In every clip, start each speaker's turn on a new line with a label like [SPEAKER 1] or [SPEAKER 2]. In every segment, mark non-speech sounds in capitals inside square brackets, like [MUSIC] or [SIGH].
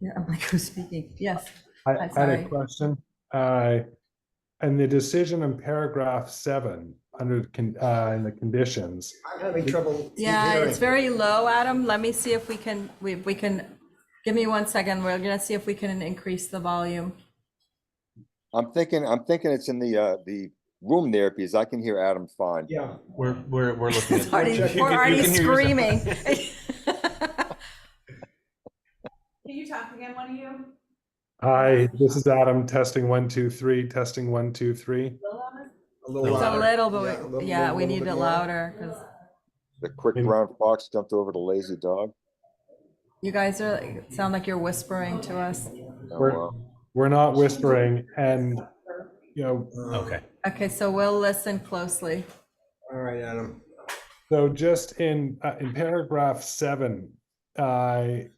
[SPEAKER 1] Yeah, I'm like, [LAUGHS] who's speaking? Yes.
[SPEAKER 2] I
[SPEAKER 1] Hi,
[SPEAKER 2] had
[SPEAKER 1] sorry.
[SPEAKER 2] a question. Uh, And the decision in paragraph seven, under, con- uh, in the conditions,
[SPEAKER 3] I'm having trouble.
[SPEAKER 1] Yeah,
[SPEAKER 3] hearing.
[SPEAKER 1] it's very low, Adam. Let me see if we can, we, we can, give me one second. We're gonna see if we can increase the volume.
[SPEAKER 4] I'm thinking, I'm thinking it's in the, uh, the room there because I can hear Adam fine.
[SPEAKER 3] Yeah,
[SPEAKER 5] We're, we're, we're looking
[SPEAKER 1] It's
[SPEAKER 5] at.
[SPEAKER 1] already,
[SPEAKER 5] You can-
[SPEAKER 1] we're
[SPEAKER 5] you
[SPEAKER 1] already
[SPEAKER 5] can hear yourself.
[SPEAKER 1] screaming. [LAUGHS]
[SPEAKER 6] Can you talk again, one of you?
[SPEAKER 2] hi, this is Adam, testing one, two, three, testing one, two, three.
[SPEAKER 3] a little
[SPEAKER 5] It's
[SPEAKER 1] It's a little,
[SPEAKER 3] louder. Yeah, a
[SPEAKER 1] but,
[SPEAKER 3] little-
[SPEAKER 1] we- yeah,
[SPEAKER 3] little-
[SPEAKER 1] we
[SPEAKER 3] little
[SPEAKER 1] need
[SPEAKER 3] bit
[SPEAKER 1] it louder, because
[SPEAKER 4] The quick
[SPEAKER 2] Mm.
[SPEAKER 4] brown fox jumped over the lazy dog.
[SPEAKER 1] you guys are, like- sound like you're whispering to us.
[SPEAKER 4] Oh,
[SPEAKER 2] We're-
[SPEAKER 4] wow.
[SPEAKER 2] We're not whispering and, you know,
[SPEAKER 3] Uh,
[SPEAKER 5] Okay.
[SPEAKER 1] Okay, so we'll listen closely.
[SPEAKER 3] All right, Adam.
[SPEAKER 2] So just in, uh, in paragraph seven, I,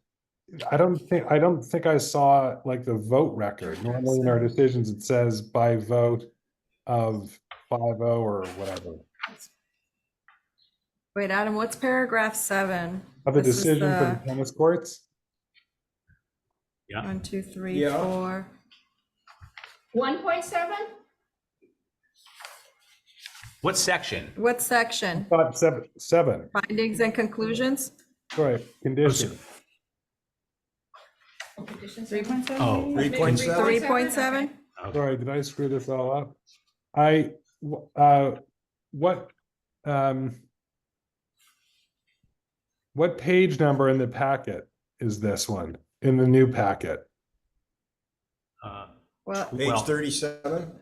[SPEAKER 2] I don't think, I don't think I saw like the vote record. Normally in our decisions, it says by vote of five oh or whatever.
[SPEAKER 1] Wait, Adam, what's paragraph seven?
[SPEAKER 2] Of the
[SPEAKER 1] This is uh,
[SPEAKER 2] decision for
[SPEAKER 1] the-
[SPEAKER 2] the tennis courts?
[SPEAKER 1] One, two, three,
[SPEAKER 3] Yeah.
[SPEAKER 1] four.
[SPEAKER 6] One point seven?
[SPEAKER 5] What section?
[SPEAKER 1] What section?
[SPEAKER 2] Thought seven, seven,
[SPEAKER 1] Findings and conclusions?
[SPEAKER 2] sorry, condition.
[SPEAKER 6] Three point seven?
[SPEAKER 5] Oh.
[SPEAKER 1] Three point seven?
[SPEAKER 2] Sorry, did I screw this all up? I, w- uh, what, um, what page number in the packet is this one, in the new packet?
[SPEAKER 5] Uh,
[SPEAKER 1] Well,
[SPEAKER 3] Page
[SPEAKER 5] Well-
[SPEAKER 3] thirty-seven.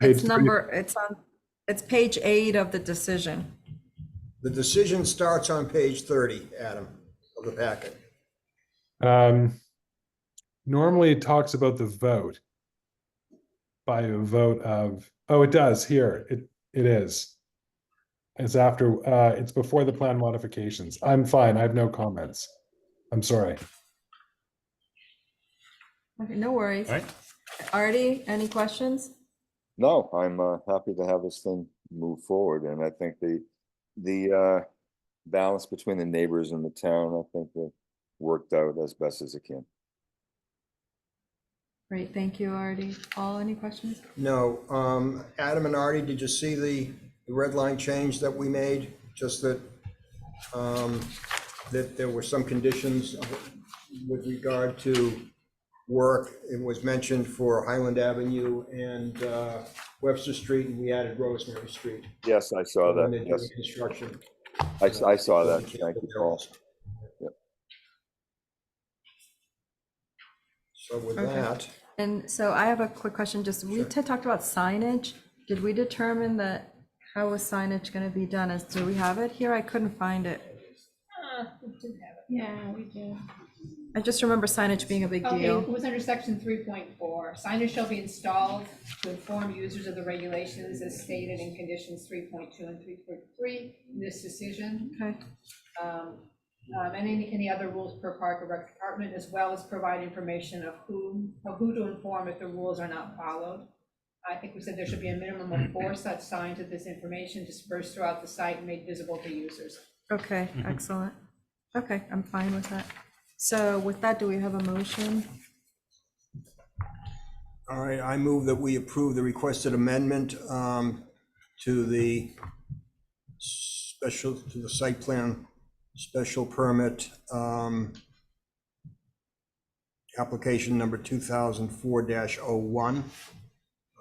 [SPEAKER 2] Page
[SPEAKER 1] it's
[SPEAKER 2] three.
[SPEAKER 1] number, it's on, it's page eight of the decision.
[SPEAKER 3] The decision starts on page thirty, Adam, of the packet.
[SPEAKER 2] Um, normally it talks about the vote by a vote of, oh, it does here. It, it is. It's after, uh, it's before the plan modifications. I'm fine. I have no comments. I'm sorry.
[SPEAKER 1] Okay, no worries.
[SPEAKER 5] All right.
[SPEAKER 1] Artie, any questions?
[SPEAKER 4] No, I'm, uh, happy to have this thing move forward and I think the, the, uh, balance between the neighbors and the town, I think that worked out as best as it can.
[SPEAKER 1] Great, thank you, Artie. Paul, any questions?
[SPEAKER 3] No, um, Adam and Artie, did you see the, the red line change that we made? Just that, um, that there were some conditions with regard to work. It was mentioned for Highland Avenue and, uh, Webster Street, and we added Rosemary Street.
[SPEAKER 4] Yes, I saw
[SPEAKER 3] when
[SPEAKER 4] that.
[SPEAKER 3] they're
[SPEAKER 4] Yes,
[SPEAKER 3] doing Construction.
[SPEAKER 4] I, s- I saw that. Thank you, Paul.
[SPEAKER 3] So with
[SPEAKER 1] Okay.
[SPEAKER 3] that,
[SPEAKER 1] And so I have a quick question, just, we t- talked about signage. Did we determine that, how was signage gonna be done? Is, do we have it here? I couldn't find it.
[SPEAKER 7] Yeah, we do.
[SPEAKER 1] I just remember signage being a big
[SPEAKER 7] Okay, it
[SPEAKER 1] deal.
[SPEAKER 7] was under section three point four, signage shall be installed to inform users of the regulations as stated in conditions three point two and three point three in this decision.
[SPEAKER 1] Okay,
[SPEAKER 7] um, um, and any, any other rules per park or rec department, as well as provide information of whom, of who to inform if the rules are not followed. I think we said there should be a minimum of four such signs of this information dispersed throughout the site and made visible to users.
[SPEAKER 1] okay,
[SPEAKER 5] Mm-hmm.
[SPEAKER 1] excellent. Okay, I'm fine with that. So with that, do we have a motion?
[SPEAKER 3] all right, I move that we approve the requested amendment um, to the special, to the site plan, special permit, um, application number 2004-01,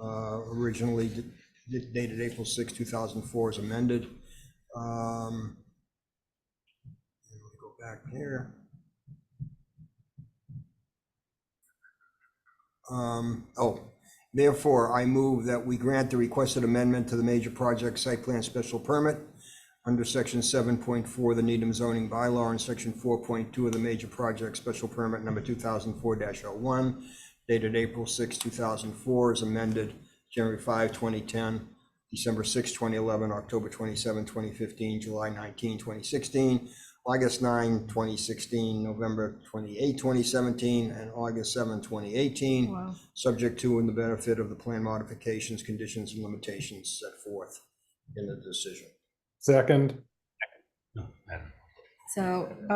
[SPEAKER 3] uh, originally d- dated April 6, 2004, is amended. Um, let me Go back here. Um, oh, therefore, I move that we grant the requested amendment to the major project site plan special permit under section seven point four of the Needham zoning bylaw and section four point two of the major project special permit number two thousand four oh one dated April 6, two thousand four, is amended January 5, 2010, December 6, 2011, October 27, 2015, July 19, 2016, August 9, 2016, November 28, 2017, and August 7, 2018
[SPEAKER 5] Hmm.
[SPEAKER 1] Wow.
[SPEAKER 3] subject to and the benefit of the plan modifications, conditions, and limitations set forth in the decision.
[SPEAKER 2] Second.
[SPEAKER 5] no, I don't know.
[SPEAKER 1] So